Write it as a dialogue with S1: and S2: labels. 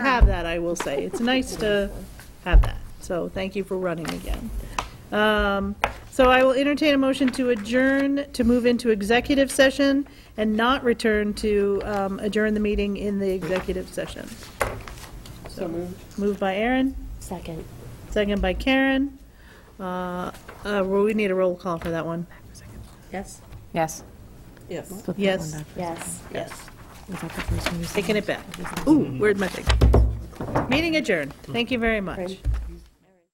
S1: that, I will say. It's nice to have that. So thank you for running again. Um, So I will entertain a motion to adjourn, to move into executive session and not return to um, adjourn the meeting in the executive session.
S2: So moved.
S1: Moved by Aaron,
S3: Second.
S1: second by Karen. Uh, uh, well, We need a roll call for that one.
S3: Yes.
S4: Yes.
S2: Yes.
S4: Flip that
S1: Yes.
S4: one back.
S3: Yes.
S1: Yes.
S4: Was that the first one you said?
S1: Taking it back. Ooh, where'd my thing? Meeting adjourned. Thank you very much.
S3: Right.